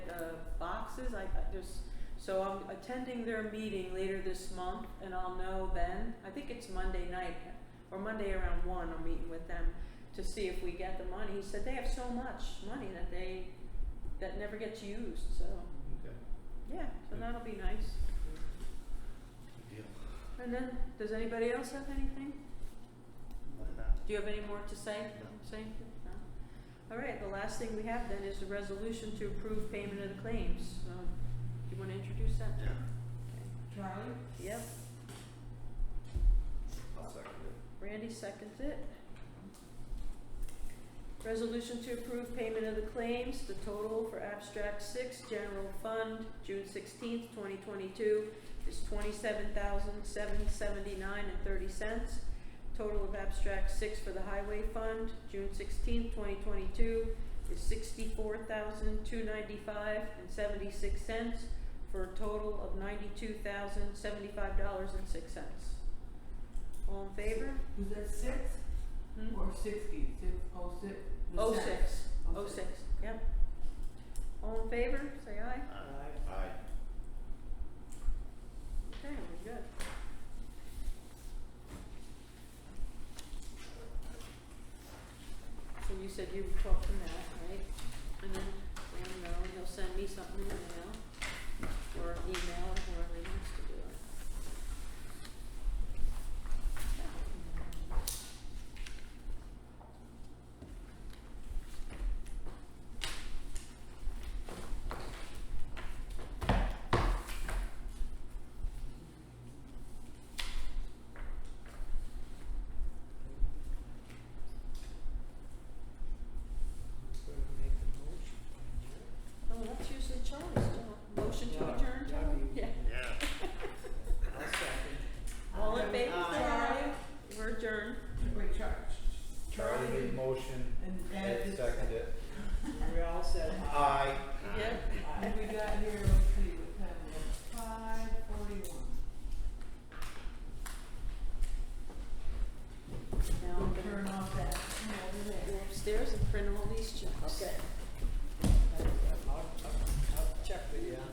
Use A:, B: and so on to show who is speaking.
A: uh, boxes, I, I just, so I'm attending their meeting later this month and I'll know then, I think it's Monday night, or Monday around one, I'm meeting with them to see if we get the money, he said they have so much money that they, that never gets used, so,
B: Okay,
A: yeah, so that'll be nice.
B: good deal.
A: And then, does anybody else have anything?
B: Other than that,
A: Do you have any more to say?
B: No.
A: Say anything? No. All right, the last thing we have then is the resolution to approve payment of the claims. So, do you wanna introduce that?
B: Yeah.
C: Charlie?
A: Yep,
B: I'll second it.
A: Randy seconds it. Resolution to approve payment of the claims, the total for abstract six, general fund, June sixteenth, twenty twenty-two is twenty-seven thousand, seven seventy-nine and thirty cents. Total of abstract six for the highway fund, June sixteenth, twenty twenty-two is sixty-four thousand, two ninety-five and seventy-six cents for a total of ninety-two thousand, seventy-five dollars and six cents. All in favor?
C: Was that six
A: Hmm?
C: or sixty? Six, oh six? the
A: Oh
C: six.
A: six,
C: Oh,
A: oh
C: six.
A: six, yep. All in favor, say aye.
C: Aye.
B: Aye.
A: Okay, we're good. So you said you would talk to Matt, right? And then, let him know, and he'll send me something in the mail, or an email, or whoever he wants to do it. Oh, that's usually Charlie's job. Motion to
C: Yeah,
A: adjourn,
C: yeah, I
A: Charlie?
C: mean-
A: Yeah.
B: Yeah.
A: All in favor, say aye.
C: Charlie?
A: We're adjourned.
C: Wait, Char-
D: Charlie made motion,
C: and Ed
D: Ed
C: just.
D: seconded.
C: We all said
D: Aye.
A: Yep.
C: And we got here, let's see, what time was it? Five forty-one.
A: Now I'm
C: We'll turn
A: gonna
C: off that. Yeah, we're
A: go
C: there.
A: upstairs and print all these checks.
C: Okay.
D: Check the, uh.